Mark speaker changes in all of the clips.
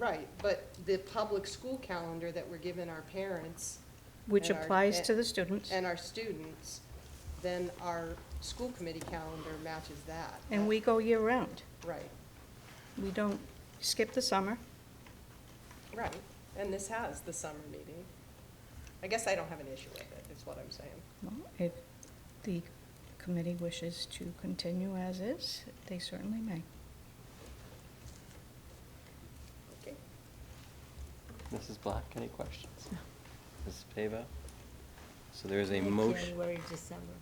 Speaker 1: Right, but the public school calendar that we're giving our parents
Speaker 2: which
Speaker 1: And our-
Speaker 2: applies to the students.
Speaker 1: and our students, then our school committee calendar matches that.
Speaker 2: And we go year-round.
Speaker 1: Right,
Speaker 2: We don't skip the summer.
Speaker 1: right, and this has the summer meeting. I guess I don't have an issue with it, is what I'm saying.
Speaker 2: Well, If the committee wishes to continue as is, they certainly may.
Speaker 1: Okay.
Speaker 3: Mrs. Black, any questions? Mrs. Pavo? So there is a motion,
Speaker 4: January, December.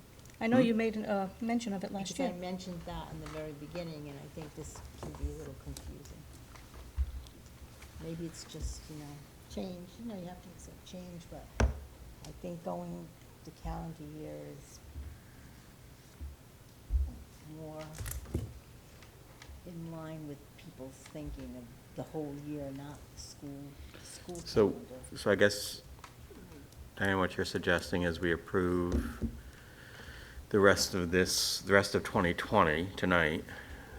Speaker 2: I know you
Speaker 3: Hmm?
Speaker 2: made an, uh, mention of it last
Speaker 4: Because
Speaker 2: year.
Speaker 4: I mentioned that in the very beginning, and I think this can be a little confusing. Maybe it's just, you know, change, you know, you have to accept change, but I think going the calendar year is more in line with people's thinking of the whole year, not school, school
Speaker 5: So,
Speaker 4: calendar.
Speaker 5: so I guess, Diane, what you're suggesting is we approve the rest of this, the rest of 2020 tonight,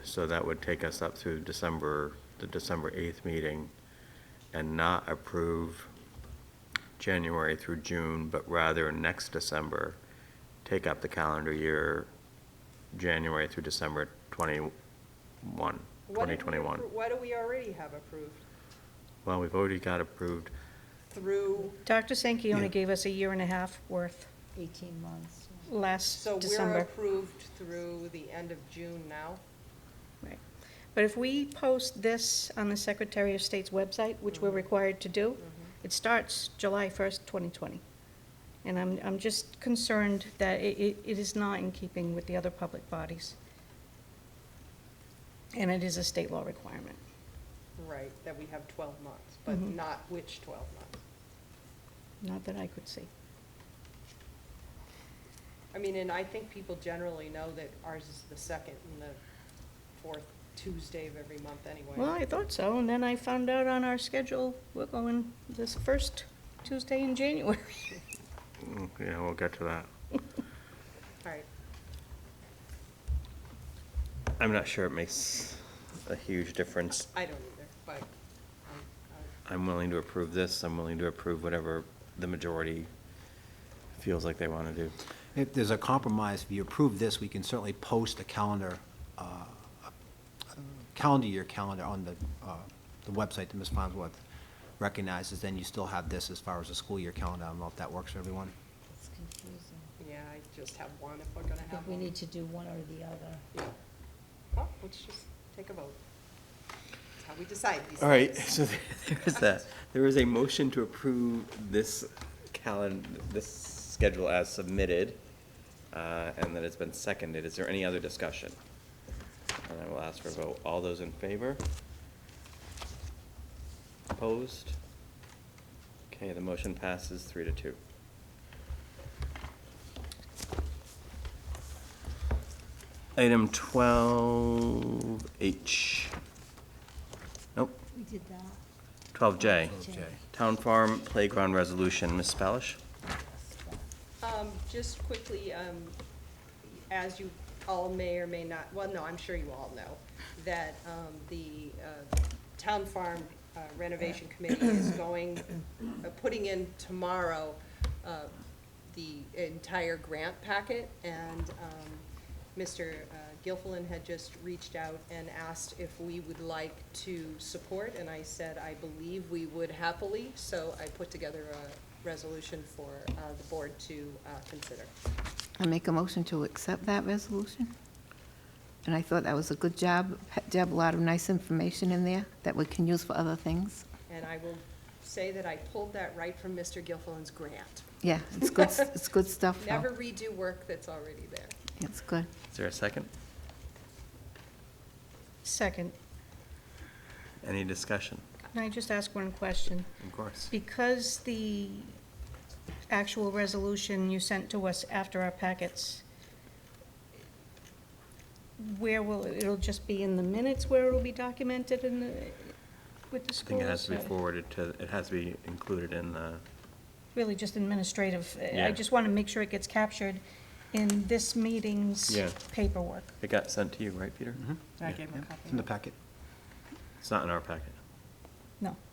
Speaker 5: so that would take us up through December, the December 8th meeting, and not approve January through June, but rather next December, take up the calendar year, January through December 21,
Speaker 1: What did we
Speaker 5: 2021.
Speaker 1: appro- What do we already have approved?
Speaker 5: Well, we've already got approved
Speaker 1: Through,
Speaker 2: Dr. Sankey only
Speaker 5: Yeah.
Speaker 2: gave us a year and a half worth
Speaker 4: Eighteen months. yeah.
Speaker 2: last
Speaker 1: so we're
Speaker 2: December.
Speaker 1: approved through the end of June now?
Speaker 2: Right. But if we post this on the Secretary of State's website, which we're
Speaker 1: Mhm.
Speaker 2: required to do,
Speaker 1: Mhm.
Speaker 2: it starts July 1st, 2020. And I'm, I'm just concerned that it, it- it is not in keeping with the other public bodies. And it is a state law requirement.
Speaker 1: Right, that we have twelve months, but
Speaker 2: Mhm.
Speaker 1: not which twelve months?
Speaker 2: Not that I could see.
Speaker 1: I mean, and I think people generally know that ours is the second and the fourth Tuesday of every month anyway.
Speaker 2: Well, I thought so, and then I found out on our schedule, we're going this first Tuesday in January.
Speaker 5: Mm, Yeah, we'll get to that.
Speaker 1: All right,
Speaker 5: I'm not sure it makes a huge difference.
Speaker 1: I don't either, but I'm,
Speaker 5: I'm willing to approve this, I'm willing to approve whatever the majority feels like they want to do.
Speaker 6: If there's a compromise, if you approve this, we can certainly post a calendar, uh, a calendar year calendar on the, uh, the website that Ms. Farnsworth recognizes, then you still have this as far as the school year calendar. I don't know if that works for everyone.
Speaker 4: It's confusing.
Speaker 1: I, yeah, I just have one if we're gonna
Speaker 4: I
Speaker 1: have
Speaker 4: think we
Speaker 1: one.
Speaker 4: need to do one or the other.
Speaker 1: Yeah. Well, let's just take a vote. That's how we decide these things.
Speaker 5: All right, so there there is that. There is a motion to approve this calendar, this schedule as submitted, uh, and that it's been seconded. Is there any other discussion? And I will ask for a vote. All those in favor? Opposed? Okay, the motion passes three to two. Item twelve H. Nope,
Speaker 4: We did that.
Speaker 5: twelve J.
Speaker 4: 12J.
Speaker 5: Town Farm Playground Resolution, Ms. Spalish?
Speaker 1: Um, just quickly, um, as you all may or may not, well, no, I'm sure you all know, that, um, the, uh, Town Farm uh, Renovation Committee is going, uh, putting in tomorrow, uh, the entire grant packet, and, um, Mr. uh, Gilfillan had just reached out and asked if we would like to support, and I said, I believe we would happily, so I put together a resolution for uh, the board to uh, consider.
Speaker 7: I make a motion to accept that resolution. And I thought that was a good job. Deb, a lot of nice information in there that we can use for other things.
Speaker 1: And I will say that I pulled that right from Mr. Gilfillan's grant.
Speaker 7: Yeah, it's good, it's good stuff, though.
Speaker 1: Never redo work that's already there.
Speaker 7: It's good.
Speaker 5: Is there a second?
Speaker 2: Second,
Speaker 5: Any discussion?
Speaker 2: can I just ask one question?
Speaker 5: Of course.
Speaker 2: Because the actual resolution you sent to us after our packets, where will, it'll just be in the minutes where it'll be documented in the, with the
Speaker 5: I
Speaker 2: schools?
Speaker 5: think it has to be
Speaker 2: or-
Speaker 5: forwarded to, it has to be included in the,
Speaker 2: Really just administrative. I
Speaker 5: Yeah.
Speaker 2: just want to make sure it gets captured in this meeting's
Speaker 5: Yeah.
Speaker 2: paperwork.
Speaker 5: it Mm-hmm. got sent to you, right, Peter?
Speaker 6: Mhm.
Speaker 1: I gave him a copy.
Speaker 6: It's in the packet.
Speaker 5: It's not in our packet.
Speaker 2: No.